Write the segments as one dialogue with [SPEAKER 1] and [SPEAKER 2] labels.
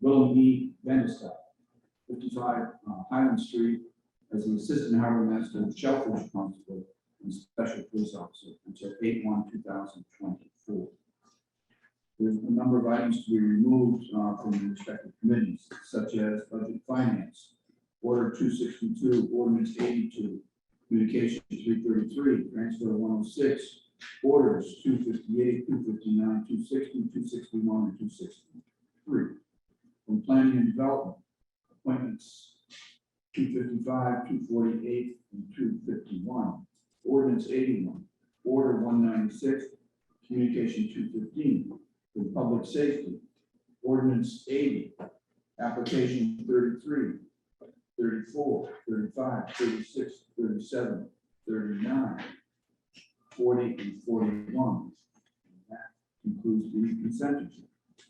[SPEAKER 1] Willem E. Vanderstack, fifty-five uh, Highland Street, as an assistant harbor master and shellfish constable and special police officer until eight one two thousand twenty-four. There's a number of items to be removed uh, from the respective committees, such as budget finance, order two sixty-two, ordinance eighty-two, communication three thirty-three, transfer one oh six, orders two fifty-eight, two fifty-nine, two sixty, two sixty-one, and two sixty-three. From planning and development, appointments two fifty-five, two forty-eight, and two fifty-one. Ordinance eighty-one, order one ninety-six, communication two fifteen, from public safety. Ordinance eighty, application 33, 34, 35, 36, 37, 39, 40, and forty-one. And That concludes the consent agenda.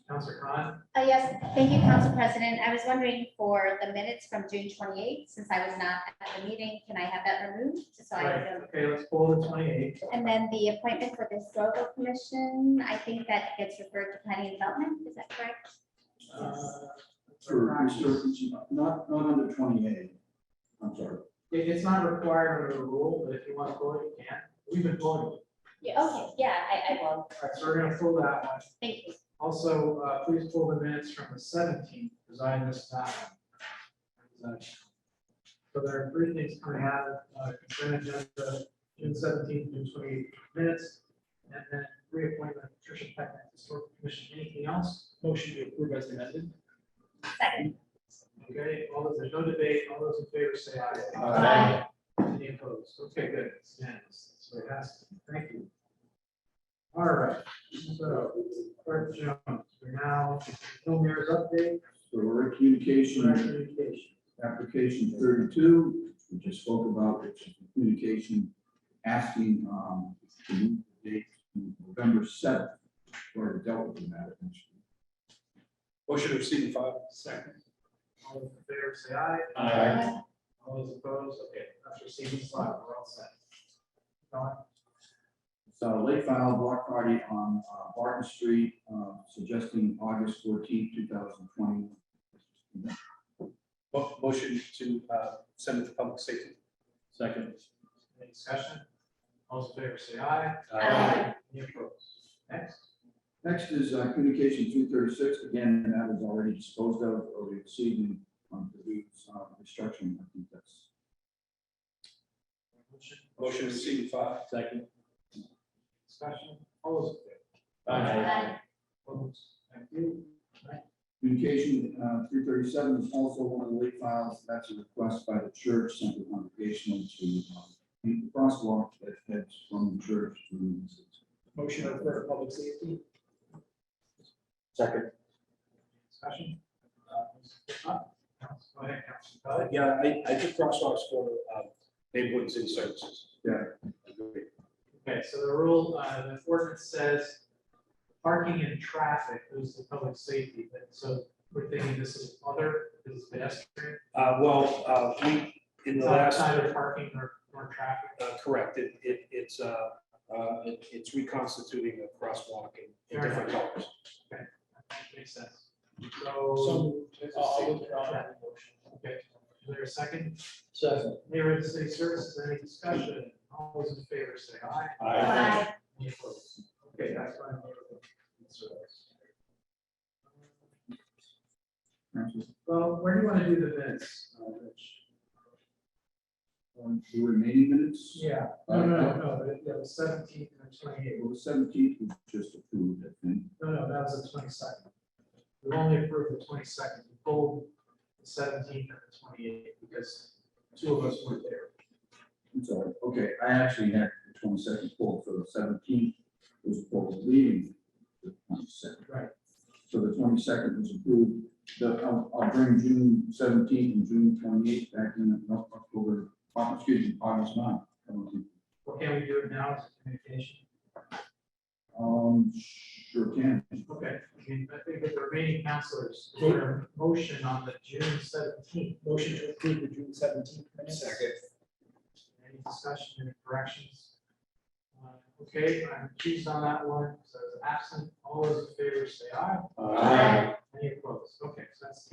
[SPEAKER 2] Counselor Khan,
[SPEAKER 3] Uh, yes, thank you, Council President. I was wondering for the minutes from June twenty-eighth, since I was not at the meeting, can I have that removed? Just so I
[SPEAKER 2] right,
[SPEAKER 3] don't-
[SPEAKER 2] okay, let's pull the twenty-eight.
[SPEAKER 3] And then the appointment for the historical commission, I think that gets referred to planning and development, is that correct?
[SPEAKER 2] Uh,
[SPEAKER 1] For research, not, not under twenty-eight. I'm sorry.
[SPEAKER 2] it's not required under the rule, but if you want to pull it, you can. We've been pulling it.
[SPEAKER 3] Yeah, okay, yeah, I, I will,
[SPEAKER 2] All right, so we're gonna pull that one.
[SPEAKER 3] thank you.
[SPEAKER 2] Also, uh, please pull the minutes from the seventeenth, because I missed that one. So there are three things coming out of uh, consent agenda, June seventeenth, June twenty-eighth minutes, and then reappointment of Patricia Peckman, to historical commission. Anything else? Motion to approve as amended.
[SPEAKER 3] Second,
[SPEAKER 2] Okay, all those, there's no debate, all those in favor say aye.
[SPEAKER 3] Aye.
[SPEAKER 2] Any opposed? Okay, good, it's unanimous, so it has, thank you. All right, so, Clerk Jones, we're now, no mayor's update,
[SPEAKER 1] So our communication,
[SPEAKER 2] communication.
[SPEAKER 1] application thirty-two, which we just spoke about, which is communication asking, um, to move the date to November seventh, or dealt with the matter.
[SPEAKER 4] Motion to receive and file.
[SPEAKER 2] Second. All those in favor say aye.
[SPEAKER 3] Aye.
[SPEAKER 2] All those opposed, okay, that's receiving slide, we're all set. Don?
[SPEAKER 1] So late file block party on uh, Barton Street, uh, suggesting August fourteenth, two thousand twenty.
[SPEAKER 4] Mo- Motion to uh, send it to public safety. Second.
[SPEAKER 2] Any discussion? All those in favor say aye.
[SPEAKER 4] Uh,
[SPEAKER 3] Aye.
[SPEAKER 2] Any opposed? Next.
[SPEAKER 1] Next is uh, communication two thirty-six, again, that was already disposed of, or exceeding on the week's uh, restructuring, I think that's.
[SPEAKER 2] Motion.
[SPEAKER 4] Motion to receive and file. Second.
[SPEAKER 2] Discussion, all those in favor?
[SPEAKER 3] Aye.
[SPEAKER 2] Opposed? Thank you.
[SPEAKER 1] Communication uh, three thirty-seven is also one of the late files. That's a request by the church, Central Congregational, to um, make the crosswalk that heads from the church to.
[SPEAKER 2] Motion to refer to public safety,
[SPEAKER 4] Second.
[SPEAKER 2] discussion. Uh, Council- Go ahead, Council Pelley.
[SPEAKER 4] Uh, Yeah, I, I did crosswalks for um, neighborhood and city services.
[SPEAKER 1] Yeah.
[SPEAKER 4] Agree.
[SPEAKER 2] Okay, so the rule, uh, the ordinance says parking and traffic is the public safety, but so we're thinking this is other, this is pedestrian.
[SPEAKER 4] Uh, Well, uh, we, in
[SPEAKER 2] It's
[SPEAKER 4] the last,
[SPEAKER 2] outside
[SPEAKER 4] uh,
[SPEAKER 2] of parking or, or traffic.
[SPEAKER 4] correct, it, it- it's, uh, uh, it- it's reconstituting a crosswalk in- in
[SPEAKER 2] Fair
[SPEAKER 4] different colors.
[SPEAKER 2] Makes sense. So. I'll withdraw that motion. Okay, is there a second? Second. Neighborhood City Services, any discussion? All those in favor say aye.
[SPEAKER 3] Aye.
[SPEAKER 2] Any opposed? Okay, that's fine. Neighborhood Services. Well, where do you want to do the minutes, uh, Rich?
[SPEAKER 1] On um, the remaining minutes,
[SPEAKER 2] Yeah, no, no, no, no, the- yeah, the seventeenth and twenty-eighth,
[SPEAKER 1] April seventeenth was just approved, I think.
[SPEAKER 2] no, no, that was the twenty-second. We only approved the twenty-second, we pulled the seventeenth and the twenty-eighth because two of us weren't there.
[SPEAKER 1] I'm sorry. Okay, I actually had the twenty-second pulled, so the seventeenth was pulled, leaving the twenty-second.
[SPEAKER 2] Right.
[SPEAKER 1] So the twenty-second was approved. The, I'll, I'll bring June seventeenth and June twenty-eighth back in, no, October, uh, excuse me, August 9th. I don't think-
[SPEAKER 2] Well, can we do it now as a communication?
[SPEAKER 1] Um, sure can.
[SPEAKER 2] Okay, I mean, I think that the remaining counselors, is there a motion on the June seventeenth. Motion to approve the June seventeenth minutes.
[SPEAKER 4] Second.
[SPEAKER 2] Any discussion, any corrections? Uh, Okay, I'm accused on that one, so it's absent, all those in favor say aye.
[SPEAKER 3] Aye.
[SPEAKER 2] Any opposed? Okay,